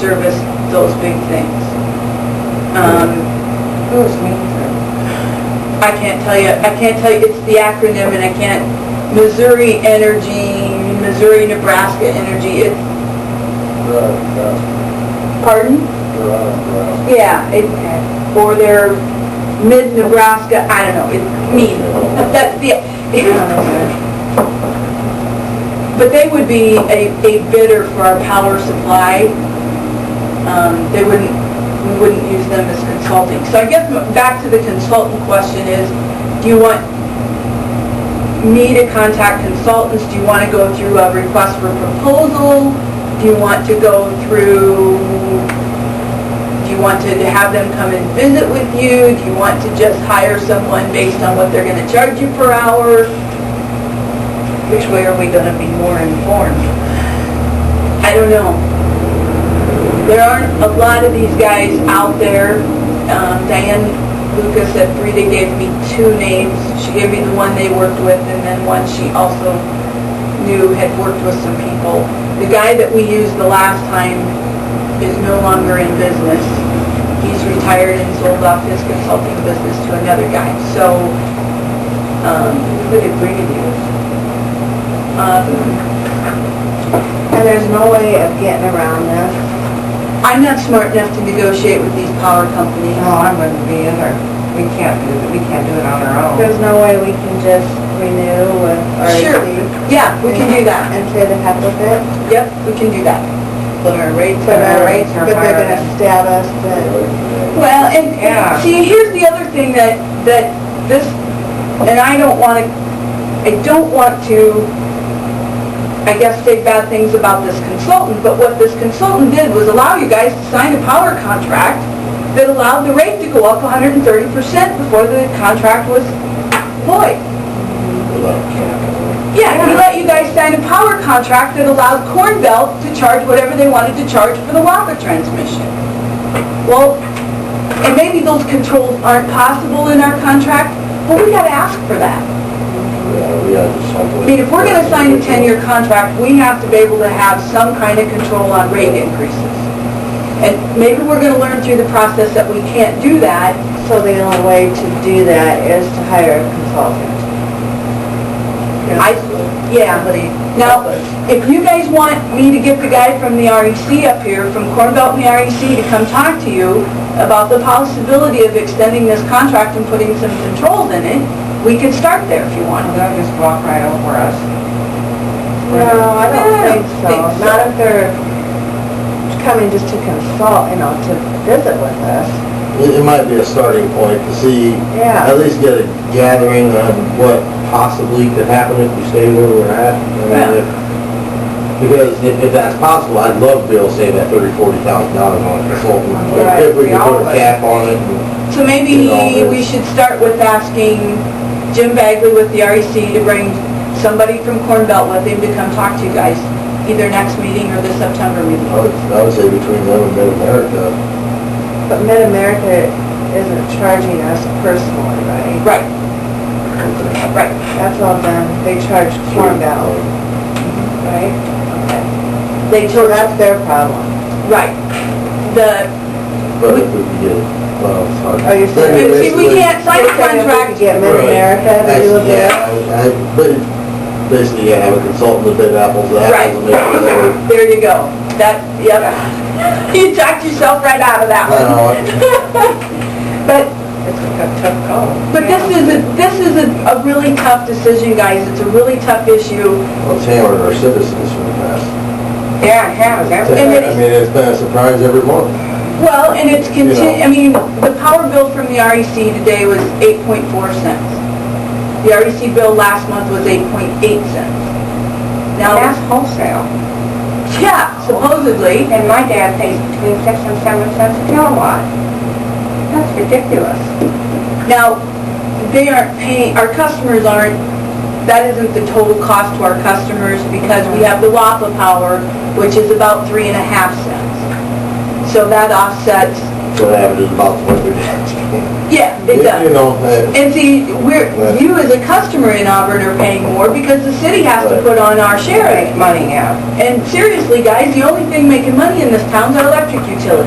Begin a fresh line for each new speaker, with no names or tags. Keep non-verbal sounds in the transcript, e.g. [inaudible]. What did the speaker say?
service those big things. Um,
Who is Mainford?
I can't tell you, I can't tell you, it's the acronym and I can't, Missouri Energy, Missouri Nebraska Energy, it's, pardon? Yeah, it, or their mid-Nebraska, I don't know, it's me. [laughs] That's the, [laughs] but they would be a, a bidder for our power supply. Um, they wouldn't, we wouldn't use them as consulting. So I guess m- back to the consultant question is, do you want me to contact consultants? Do you want to go through a request for proposal? Do you want to go through do you want to have them come and visit with you? Do you want to just hire someone based on what they're gonna charge you per hour? Which way are we gonna be more informed? I don't know. There aren't a lot of these guys out there. Um, Diane Lucas at Frida gave me two names. She gave me the one they worked with and then one she also knew had worked with some people. The guy that we used the last time is no longer in business. He's retired and sold off his consulting business to another guy. So, um, who did Brady use? Um,
And there's no way of getting around this.
I'm not smart enough to negotiate with these power companies.
No, I wouldn't be either. We can't do it, we can't do it on our own.
There's no way we can just renew with
Sure,
REC
yeah, we can do that.
and say the heck with it.
Yep, we can do that. But our rates
But our rates
are
But they're
higher.
gonna stab us, but
Well, and,
Yeah.
and see, here's the other thing that, that this, and I don't want to, I don't want to, I guess, say bad things about this consultant, but what this consultant did was allow you guys to sign a power contract that allowed the rate to go up 130% before the contract was void. Yeah, he let you guys sign a power contract that allowed Corn Belt to charge whatever they wanted to charge for the Waka transmission. Well, and maybe those controls aren't possible in our contract, but we gotta ask for that. I mean, if we're gonna sign a ten-year contract, we have to be able to have some kind of control on rate increases. And maybe we're gonna learn through the process that we can't do that,
so the only way to do that is to hire a consultant.
I, yeah, but now, if you guys want me to get the guy from the REC up here, from Corn Belt and the REC, to come talk to you about the possibility of extending this contract and putting some controls in it, we could start there if you want.
They'll just walk right over us.
No, I don't
I
think
think so.
so. Not if they're coming just to consult, you know, to visit with us.
It it might be a starting point to see,
Yeah.
at least get a gathering on what possibly could happen if we stay where we're at. I mean,
Yeah.
if- Because if if that's possible, I'd love to be able to save that thirty, forty thousand dollars on a consultant.
Right,
If we
we
could
all
put
would.
a cap on it, and-
So maybe
You know,
we
it's-
should start with asking Jim Bagley with the REC to bring somebody from Corn Belt with him to come talk to you guys, either next meeting or the September meeting.
I would, I would say between them and Mid-America,
But Mid-America isn't charging us personally, right?
Right, right.
That's all done, they charge Corn Valley, right?
They
So
told us,
that's their problem.
right. The,
But if we could get, well, it's hard.
Are you
Then
serious?
you
Oh, See, we
basically-
can't sign a
Okay, if we could
contract.
Get Mid-America to
Right.
do a bid.
Yeah, I, I, but basically, yeah, have a consultant to bid apples to
Right.
apples and make sure that we're
There you go. That, yep. [laughs] You talked yourself right out of that
I know
one. But,
It's a tough call.
but this is a, this is a a really tough decision, guys. It's a really tough issue.
Well, it's hammered our citizens for the past.
Yeah, it has, that's
I
And it's-
mean, it's been a surprise every month.
Well, and it's
You know.
continu, I mean, the power bill from the REC today was 8.4 cents. The REC bill last month was 8.8 cents. Now,
That's wholesale.
yeah, supposedly,
And my dad pays between six and seven cents a kilowatt. That's ridiculous.
Now, they aren't paying, our customers aren't, that isn't the total cost to our customers because we have the WAPA power, which is about three and a half cents. So that offsets
Minnesota Avenue is about what [laughs] they're asking.
Yeah, it does.
You know, uh,
And see, we're,
Right.
you as a customer in Auburn are paying more because the city has to
Right.
put on our share of it.
make money now.
And seriously, guys, the only thing making money in this town's our electric utility.